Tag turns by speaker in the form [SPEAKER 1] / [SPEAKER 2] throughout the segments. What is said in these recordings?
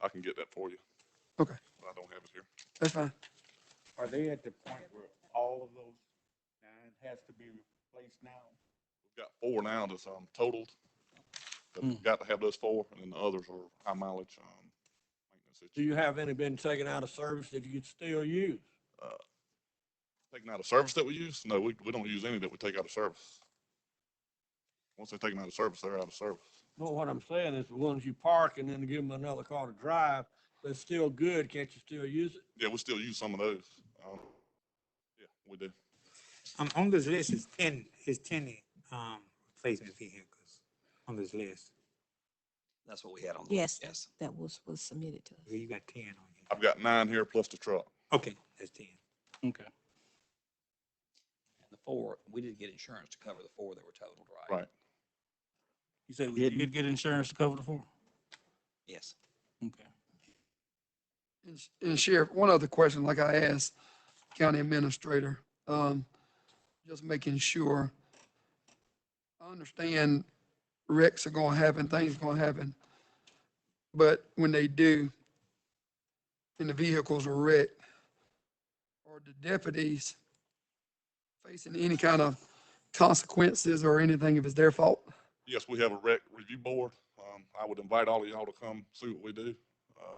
[SPEAKER 1] I can get that for you,
[SPEAKER 2] Okay,
[SPEAKER 1] but I don't have it here.
[SPEAKER 2] that's fine.
[SPEAKER 3] Are they at the point where all of those nine has to be replaced now?
[SPEAKER 1] We've got four now that's, um, totaled. But we've got to have those four, and then the others are high mileage, um, maintenance that
[SPEAKER 4] Do
[SPEAKER 1] you-
[SPEAKER 4] you have any been taken out of service that you could still use?
[SPEAKER 1] taking out of service that we use? No, we, we don't use any that we take out of service. Once they're taken out of service, they're out of service.
[SPEAKER 4] No, what I'm saying is the ones you park and then give them another car to drive, they're still good, can't you still use it?
[SPEAKER 1] Yeah, we still use some of those. Um, yeah, we do.
[SPEAKER 5] Um, on this list is ten, is ten, um, replacement vehicles on this list.
[SPEAKER 6] That's what we had on the
[SPEAKER 7] Yes,
[SPEAKER 6] list, yes.
[SPEAKER 7] that was, was submitted to us.
[SPEAKER 5] You got ten on here.
[SPEAKER 1] I've got nine here plus the truck.
[SPEAKER 5] Okay, that's ten.
[SPEAKER 8] Okay.
[SPEAKER 6] And the four, we did get insurance to cover the four that were totaled, right?
[SPEAKER 1] Right.
[SPEAKER 8] You said we did get insurance to cover the four?
[SPEAKER 6] Yes.
[SPEAKER 8] Okay.
[SPEAKER 2] And sh- And Sheriff, one other question, like I asked County Administrator, um, just making sure. I understand wrecks are gonna happen, things gonna happen. But when they do, and the vehicles are wrecked, are the deputies facing any kind of consequences or anything if it's their fault?
[SPEAKER 1] Yes, we have a rec review board. Um, I would invite all of y'all to come see what we do. Uh,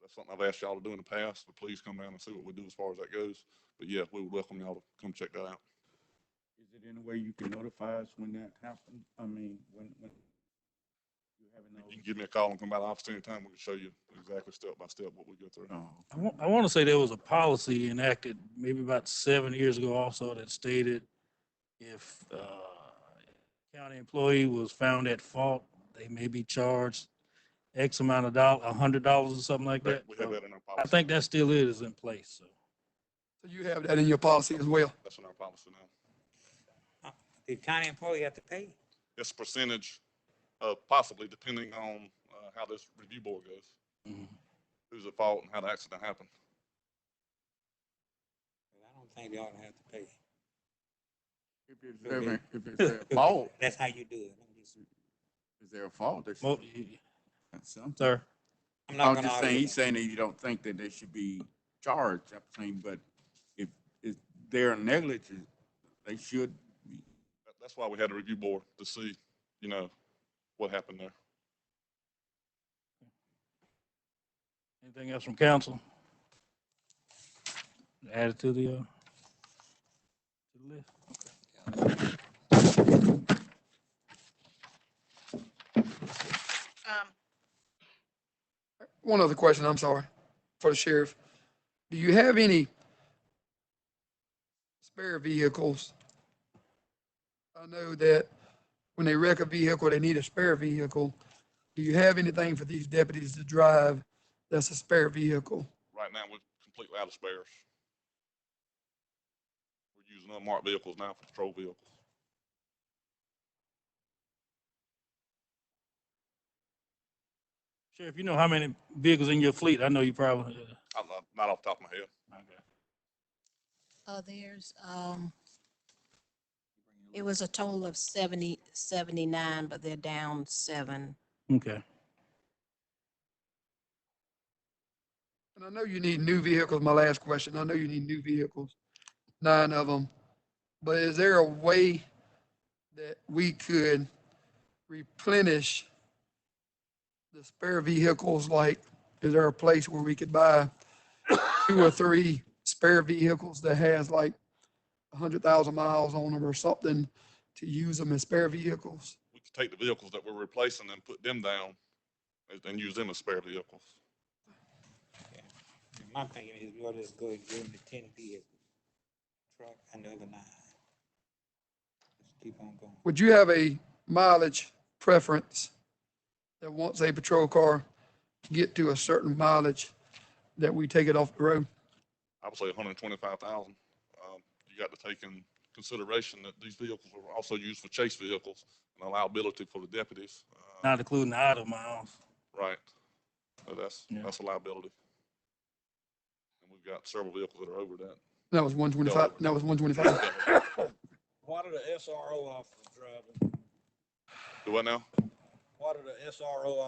[SPEAKER 1] That's something I've asked y'all to do in the past, but please come down and see what we do as far as that goes. But yeah, we would welcome y'all to come check that out.
[SPEAKER 3] Is it any way you can notify us when that happens? I mean, when, when you having
[SPEAKER 1] You can
[SPEAKER 3] those?
[SPEAKER 1] give me a call and come by the office anytime. We can show you exactly step by step what we go through.
[SPEAKER 8] I want, I want to say there was a policy enacted maybe about seven years ago also that stated if uh, county employee was found at fault, they may be charged X amount of dollars, a hundred dollars or something like that.
[SPEAKER 1] That- We have
[SPEAKER 8] So
[SPEAKER 1] that in our
[SPEAKER 8] I
[SPEAKER 1] policy.
[SPEAKER 8] think that still is in place, so.
[SPEAKER 2] So you have that in your policy as well?
[SPEAKER 1] That's in our policy now.
[SPEAKER 5] The county employee have to pay?
[SPEAKER 1] It's a percentage, uh, possibly depending on, uh, how this review board goes.
[SPEAKER 8] Mhm.
[SPEAKER 1] Who's at fault and how the accident happened.
[SPEAKER 5] I don't think they ought to have to pay.
[SPEAKER 9] If it's their, if it's their fault,
[SPEAKER 5] That's how you do it. I'm just-
[SPEAKER 9] it's their fault. They
[SPEAKER 8] Mo-
[SPEAKER 9] should-
[SPEAKER 8] y-
[SPEAKER 9] that's something.
[SPEAKER 8] Sir,
[SPEAKER 5] I'm
[SPEAKER 9] I
[SPEAKER 5] not
[SPEAKER 9] was
[SPEAKER 5] gonna
[SPEAKER 9] just
[SPEAKER 5] argue
[SPEAKER 9] saying, he's
[SPEAKER 5] that.
[SPEAKER 9] saying that you don't think that they should be charged, I'm saying, but if, if they're negligent, they should be.
[SPEAKER 1] That- That's why we had a review board to see, you know, what happened there.
[SPEAKER 8] anything else from council? Add it to the, uh, to the list?
[SPEAKER 10] Um,
[SPEAKER 2] One other question, I'm sorry, for the sheriff. Do you have any spare vehicles? I know that when they wreck a vehicle, they need a spare vehicle. Do you have anything for these deputies to drive that's a spare vehicle?
[SPEAKER 1] Right now, we're completely out of spares. We're using unmarked vehicles now for patrol vehicles.
[SPEAKER 8] Sheriff, you know how many vehicles in your fleet? I know you probably, uh,
[SPEAKER 1] I'm not, not off the top of my head.
[SPEAKER 8] okay.
[SPEAKER 7] Uh, there's, um, it was a total of 70, 79, but they're down seven.
[SPEAKER 8] Okay.
[SPEAKER 2] And I know you need new vehicles, my last question. I know you need new vehicles, nine of them. But is there a way that we could replenish the spare vehicles? Like, is there a place where we could buy two or three spare vehicles that has like a hundred thousand miles on them or something to use them as spare vehicles?
[SPEAKER 1] We could take the vehicles that we're replacing and put them down and, and use them as spare vehicles.
[SPEAKER 5] My thinking is we ought to just go and give them the ten vehicle. Truck and the other nine. Just keep on going.
[SPEAKER 2] Would you have a mileage preference that once a patrol car get to a certain mileage, that we take it off the road?
[SPEAKER 1] I would say hundred and twenty-five thousand. Um, you got to take in consideration that these vehicles are also used for chase vehicles and a liability for the deputies. Uh,
[SPEAKER 8] Not including the idle miles.
[SPEAKER 1] Right. So that's,
[SPEAKER 8] Yeah.
[SPEAKER 1] that's a liability. And we've got several vehicles that are over that.
[SPEAKER 2] That was one twenty-five, that was one twenty-five.
[SPEAKER 4] Why do the SRO officers drive them?
[SPEAKER 1] Do what now?
[SPEAKER 4] Why do the SRO